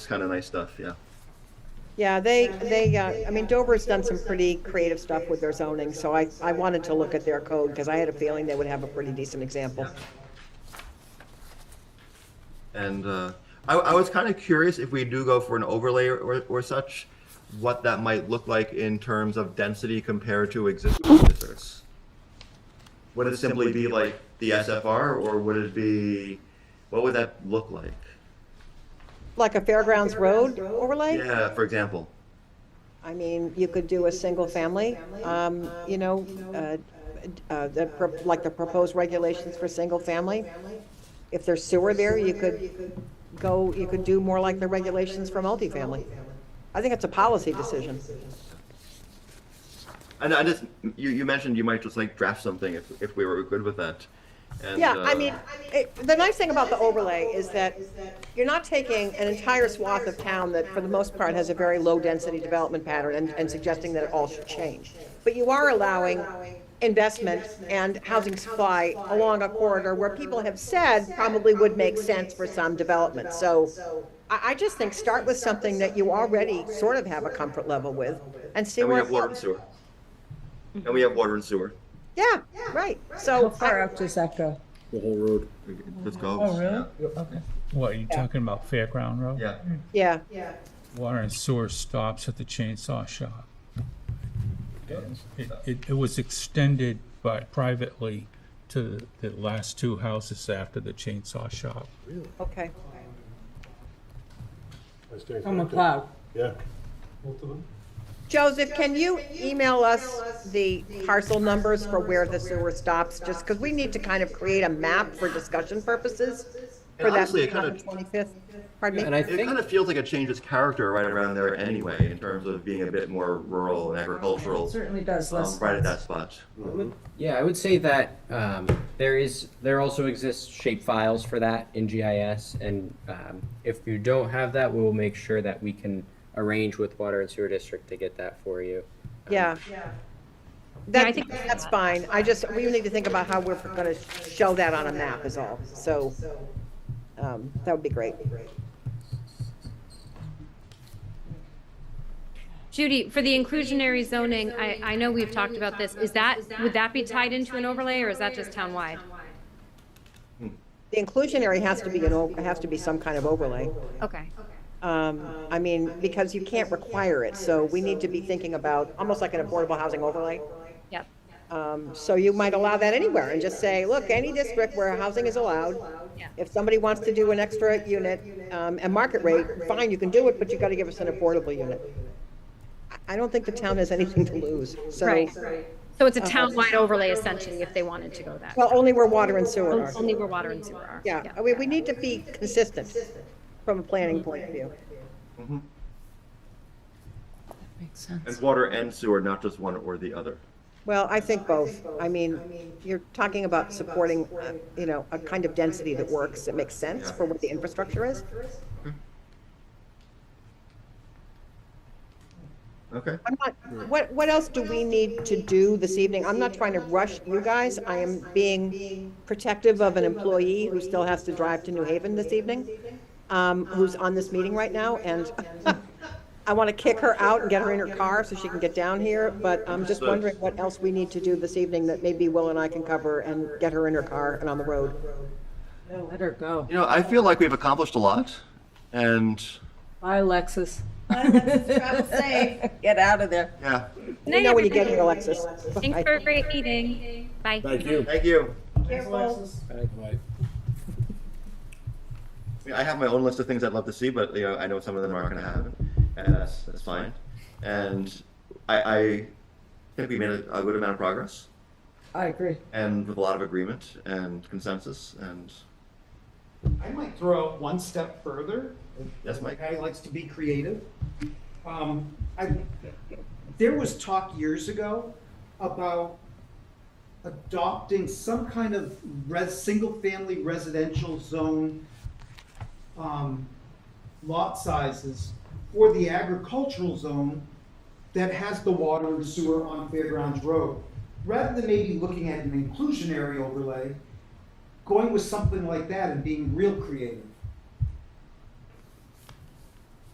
kind of nice stuff. Yeah. Yeah, they, they, uh, I mean, Dover's done some pretty creative stuff with their zoning, so I, I wanted to look at their code because I had a feeling they would have a pretty decent example. And uh, I, I was kind of curious if we do go for an overlay or, or such, what that might look like in terms of density compared to existing districts. Would it simply be like the SFR, or would it be, what would that look like? Like a Fairgrounds Road overlay? Yeah, for example. I mean, you could do a single family, um, you know, uh, uh, the, pro- like the proposed regulations for single family. If there's sewer there, you could go, you could do more like the regulations for multifamily. I think it's a policy decision. And I just, you, you mentioned you might just like draft something if, if we were good with that. And, Yeah, uh, I mean, it- the nice thing about the overlay is that you're not taking an entire swath of town that, for the most part, has a very low-density development pattern and, and suggesting that it all should change. But you are allowing investment and housing supply along a corridor where people have said probably would make sense for some development. So I, I just think start with something that you already sort of have a comfort level with and see And we where. it have water and goes. sewer. And we have water and sewer. Yeah, right. How So far I- out does that go? The whole road. Just goes. Oh, really? What, you talking about Fairground Road? Yeah. yeah, Water and sewer stops at the chainsaw shop. It, it, it was extended by privately to the last two houses after the chainsaw shop. okay. From McLeod. Yeah. Joseph, can you email us the parcel numbers for where the sewer stops? Just because we need to kind of create a map for discussion purposes for And that honestly, it kind of 25th. Pardon And me? I It kind think, of feels like it changes character right around there anyway, in terms of being a bit more rural and agricultural, Certainly does, um, less. right at that spot. yeah, I would say that um, there is, there also exists shape files for that in GIS. And um, if you don't have that, we'll make sure that we can arrange with Water and Sewer District to get that for you. Um, Yeah. Yeah, I That, think- that's fine. I just, we need to think about how we're going to show that on a map is all. So um, that would be great. Judy, for the inclusionary zoning, I, I know we've talked about this. Is that, would that be tied into an overlay or is that just townwide? The inclusionary has to be, an o- has to be some kind of overlay. Okay. Um, I mean, because you can't require it, so we need to be thinking about, almost like an affordable housing overlay. Yep. Um, so you might allow that anywhere and just say, look, any district where housing is allowed, Yeah. if somebody wants to do an extra unit, um, at market rate, fine, you can do it, but you gotta give us an affordable unit. I- I don't think the town has anything to lose, so, Right. So it's a townwide overlay essentially if they wanted to go that. well, only where water and sewer are. Only where water and sewer are. Yeah, I mean, we need to be consistent from a planning point of view. Makes sense. Mm-hmm. And water and sewer, not just one or the other. Well, I think both. I mean, you're talking about supporting, uh, you know, a kind of density that works, that makes sense for what the infrastructure is. Okay. I'm not, what, what else do we need to do this evening? I'm not trying to rush you guys. I am being protective of an employee who still has to drive to New Haven this evening, um, who's on this meeting right now, and I want to kick her out and get her in her car so she can get down here, but I'm just wondering what else we need to do this evening that maybe Will and I can cover and get her in her car and on the road. Let her go. You know, I feel like we've accomplished a lot, and Bye, Alexis. Get out of there. yeah. You know when you get here, Alexis. Thanks for a great meeting. Bye. Thank you. Thank you. Right. I mean, I have my own list of things I'd love to see, but you know, I know some of them aren't going to happen, and that's that's fine. And I, I think we made a, a good amount of progress, I agree. and with a lot of agreement and consensus, and I might throw out one step further. Yes, Mike. The guy likes to be creative. Um, I, there was talk years ago about adopting some kind of res, single-family residential zone, um, lot sizes for the agricultural zone that has the water and sewer on Fairgrounds Road. Rather than maybe looking at an inclusionary overlay, going with something like that and being real creative.